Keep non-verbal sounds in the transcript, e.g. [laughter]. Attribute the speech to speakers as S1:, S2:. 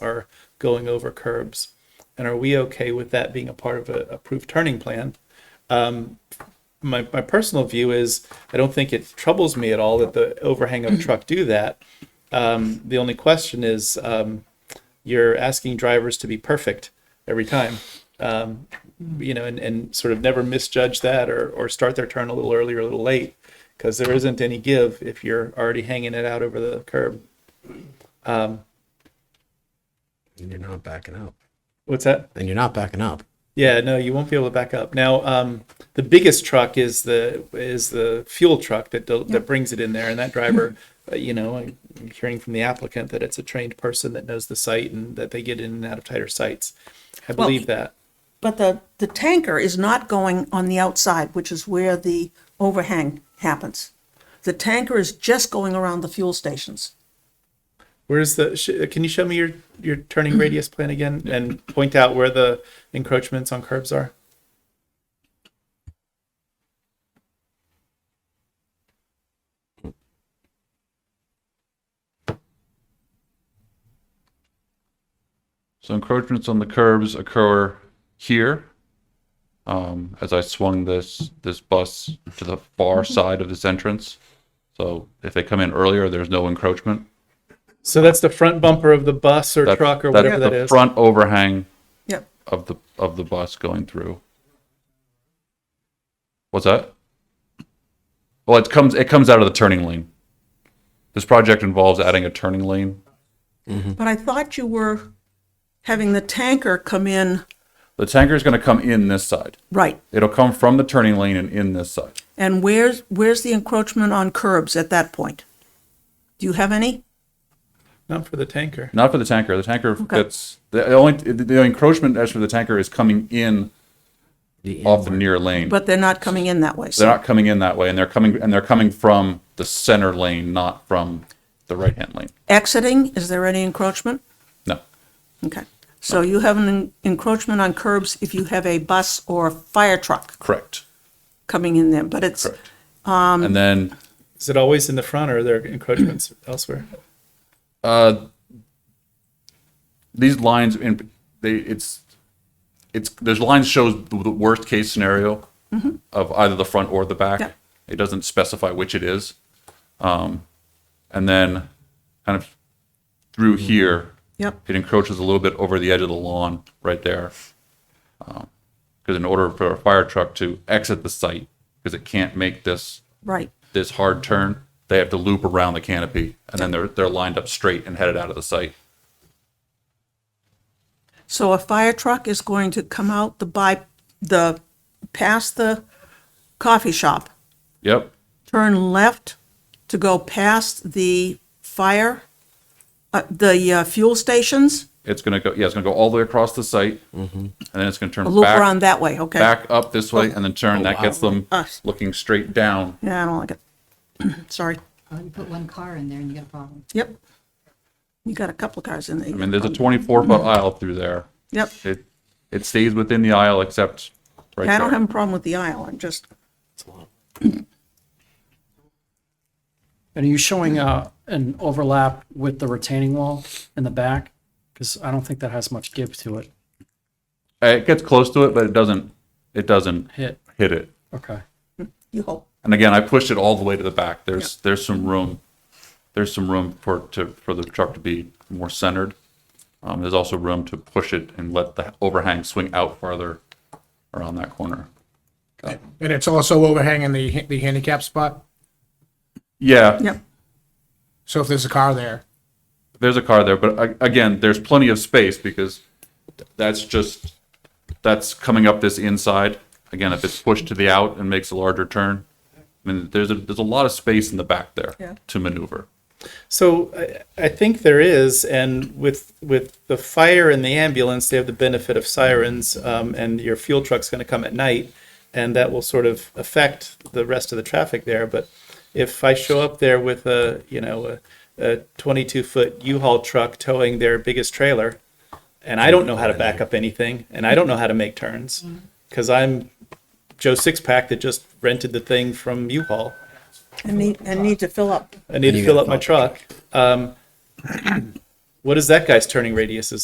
S1: are going over curbs? And are we okay with that being a part of a approved turning plan? Um, my, my personal view is I don't think it troubles me at all that the overhang of a truck do that. Um, the only question is um, you're asking drivers to be perfect every time, um, you know, and, and sort of never misjudge that or, or start their turn a little early or a little late because there isn't any give if you're already hanging it out over the curb.
S2: And you're not backing up.
S1: What's that?
S2: And you're not backing up.
S1: Yeah, no, you won't be able to back up. Now, um, the biggest truck is the is the fuel truck that del- that brings it in there, and that driver, uh, you know, I'm hearing from the applicant that it's a trained person that knows the site and that they get in and out of tighter sites. I
S3: Well-
S1: believe that.
S3: But the, the tanker is not going on the outside, which is where the overhang happens. The tanker is just going around the fuel stations.
S1: Where's the? Sh- can you show me your your turning radius plan again and point out where the encroachments on curbs are?
S4: So encroachments on the curbs occur here. Um, as I swung this this bus to the far
S1: Mm-hmm.
S4: side of this entrance. So if they come in earlier, there's no encroachment.
S1: So that's the front bumper of the bus or
S4: That's-
S1: truck or
S4: that's
S1: whatever that
S4: the
S1: is.
S4: Front overhang
S3: Yep.
S4: of the of the bus going through. What's that? Well, it comes it comes out of the turning lane. This project involves adding a turning lane. Mm-hmm.
S3: But I thought you were having the tanker come in,
S4: The tanker is going to come in this side.
S3: right.
S4: It'll come from the turning lane and in this side.
S3: And where's, where's the encroachment on curbs at that point? Do you have any?
S1: Not for the tanker.
S4: Not for the tanker. The tanker gets the only the, the encroachment as for the tanker is coming in
S2: The
S4: off the near lane.
S3: But they're not coming in that way.
S4: they're
S3: So,
S4: not coming in that way, and they're coming and they're coming from the center lane, not from the right hand lane.
S3: exiting, is there any encroachment?
S4: No,
S3: Okay. So you have an en- encroachment on curbs if you have a bus or a fire truck
S4: correct,
S3: coming in there, but it's,
S4: correct. and then
S1: Is it always in the front or are there encroachments [clears throat] elsewhere?
S4: these lines in they it's it's there's lines shows the worst case scenario of either the front or the back.
S3: Yeah.
S4: It doesn't specify which it is, um, and then kind of through here,
S3: yep.
S4: it encroaches a little bit over the edge of the lawn right there. Because in order for a fire truck to exit the site, because it can't make this
S3: Right.
S4: this hard turn, they have to loop around the canopy, and then they're they're lined up straight and headed out of the site.
S3: So a fire truck is going to come out the by, the, past the coffee shop,
S4: Yep.
S3: turn left to go past the fire, uh, the uh, fuel stations,
S4: It's gonna go. Yeah, it's gonna go all the way across the site, and then it's gonna turn
S3: a loop
S4: back
S3: around Oh, that way, okay?
S4: back up this way, and then turn. that gets them
S3: Us.
S4: looking straight down.
S3: Yeah, I don't like it. [clears throat] Sorry.
S5: Oh, you put one car in there and you got a problem.
S3: Yep. You got a couple of cars in there.
S4: I mean, there's a 24 foot aisle through there.
S3: Yep.
S4: It it stays within the aisle except right
S3: I don't
S4: there.
S3: have a problem with the aisle, I'm just,
S6: And are you showing uh, an overlap with the retaining wall in the back? Because I don't think that has much give to it.
S4: it gets close to it, but it doesn't. It doesn't
S6: Hit.
S4: hit it.
S6: Okay.
S3: you hope.
S4: And again, I pushed it all the way to the back. There's there's some room. There's some room for to for the truck to be more centered. Um, there's also room to push it and let the overhang swing out farther around that corner.
S7: And it's also overhanging the, the handicap spot,
S4: Yeah,
S3: Yep.
S7: so if there's a car there.
S4: there's a car there, but a- again, there's plenty of space because that's just that's coming up this inside. Again, if it's pushed to the out and makes a larger turn, I mean, there's a there's a lot of space in the back there
S3: Yeah.
S4: to maneuver.
S1: So I, I think there is, and with with the fire and the ambulance, they have the benefit of sirens, um, and your fuel truck's going to come at night, and that will sort of affect the rest of the traffic there. But if I show up there with a you know a, a 22 foot U-Haul truck towing their biggest trailer, and I don't know how to back up anything, and I don't know how to make turns, because I'm Joe Sixpack that just rented the thing from U-Haul.
S3: I need, I need to fill up.
S1: I need to
S2: you
S1: fill
S2: gotta
S1: up my truck. Um, What is that guy's turning radius? Is